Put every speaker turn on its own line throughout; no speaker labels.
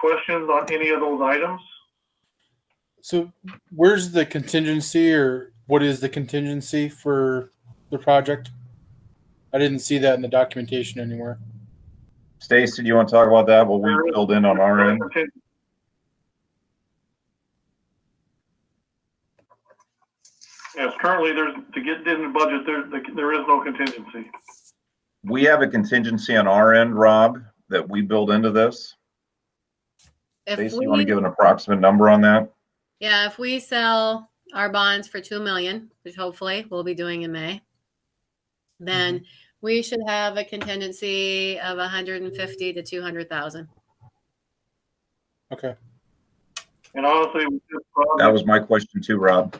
questions on any of those items?
So where's the contingency or what is the contingency for the project? I didn't see that in the documentation anywhere.
Stacy, do you want to talk about that? What we filled in on our end?
Yes, currently, there's, to get in the budget, there, there is no contingency.
We have a contingency on our end, Rob, that we build into this.
If
Stacy, you want to
we,
give an approximate number on that?
yeah, if we sell our bonds for two million, which hopefully we'll be doing in May,
Mm-hmm.
then we should have a contingency of a hundred and fifty to two hundred thousand.
Okay.
And honestly, with this
That
project,
was my question too, Rob.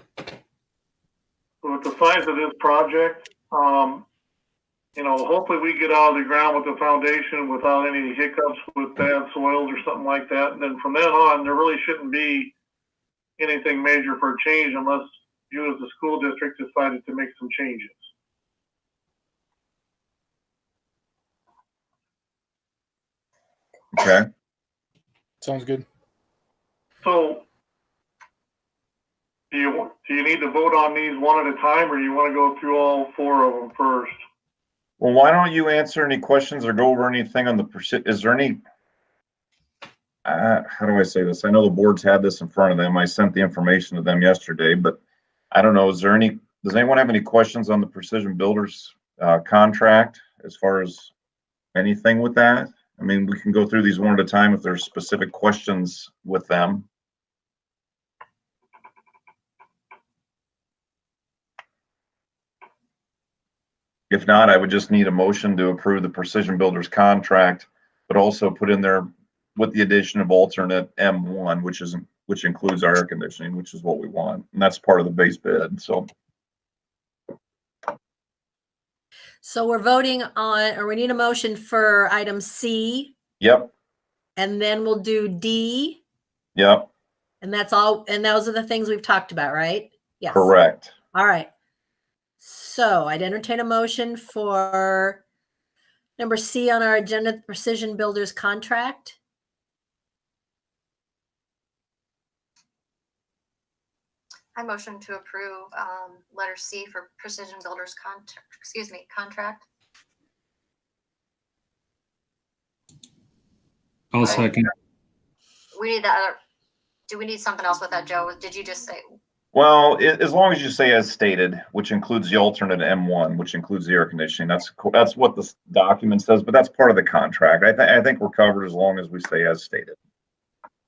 with the size of this project, um, you know, hopefully we get out of the ground with the foundation without any hiccups with bad soils or something like that. And then from then on, there really shouldn't be anything major for a change unless you as the school district decided to make some changes.
Okay.
Sounds good.
So do you, want- do you need to vote on these one at a time or you want to go through all four of them first?
Well, why don't you answer any questions or go over anything on the, perci- is there any? Uh, how do I say this? I know the boards had this in front of them. I sent the information to them yesterday, but I don't know, is there any, does anyone have any questions on the Precision Builders, uh, contract as far as anything with that? I mean, we can go through these one at a time if there's specific questions with them. If not, I would just need a motion to approve the Precision Builders contract, but also put in there with the addition of alternate M1, which isn't, which includes our air conditioning, which is what we want. And that's part of the base bid. So
So we're voting on, or we need a motion for item C,
Yep,
and then we'll do D,
yep,
and that's all, and those are the things we've talked about, right? Yes.
correct.
All right. So I'd entertain a motion for number C on our agenda, the Precision Builders contract.
I motion to approve um, letter C for Precision Builders contract, excuse me, contract.
I'll
Okay.
second.
We need that, other- do we need something else with that, Joe? Did you just say,
Well, i- as long as you say as stated, which includes the alternate M1, which includes the air conditioning, that's, co- that's what this document says, but that's part of the contract. I, thi- I think we're covered as long as we say as stated.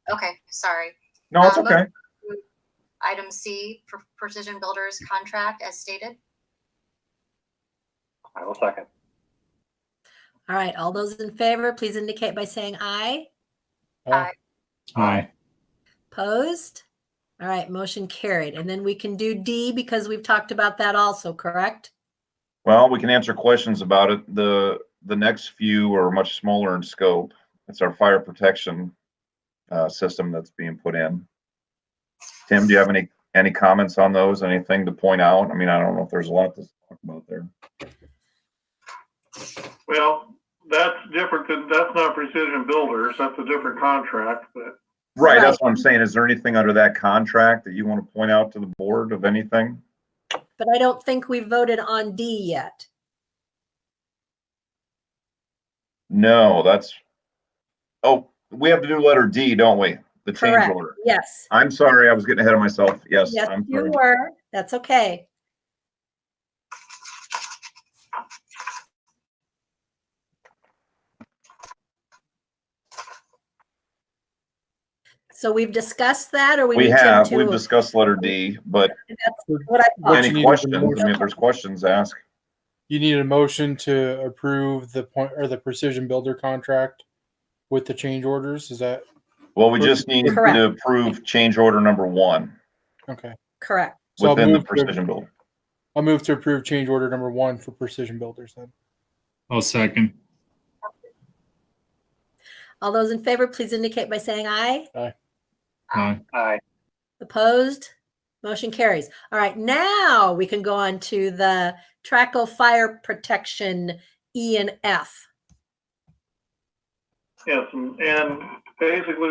okay, sorry.
No, it's
Um,
okay.
Item C for Precision Builders contract as stated.
I will second.
All right, all those in favor, please indicate by saying aye.
Aye.
Aye.
Opposed? All right, motion carried. And then we can do D because we've talked about that also, correct?
Well, we can answer questions about it. The, the next few are much smaller in scope. It's our fire protection uh, system that's being put in. Tim, do you have any, any comments on those? Anything to point out? I mean, I don't know if there's a lot to talk about there.
Well, that's different than, that's not Precision Builders, that's a different contract, but
Right,
Right.
that's what I'm saying. Is there anything under that contract that you want to point out to the board of anything?
But I don't think we voted on D yet.
No, that's, oh, we have to do letter D, don't we? The change
Correct.
order.
Yes.
I'm sorry, I was getting ahead of myself. Yes,
Yes,
I'm
you
sorry.
were. That's okay. So we've discussed that or we
We
need
have,
Tim
we've
to?
discussed letter D, but
What I
What
thought.
you need
any
is a
questions, I mean,
motion.
if there's questions, ask.
You need a motion to approve the point or the precision builder contract with the change orders. Is that
Well, we just need
Correct.
to approve change order number one
okay?
Correct.
So I'll
within the
move, to,
precision build.
I'll move to approve change order number one for precision builders then.
I'll second.
All those in favor, please indicate by saying aye.
Aye.
Opposed? Motion carries. All right, now we can go on to the Traco Fire Protection E and F.
yes, and- and basically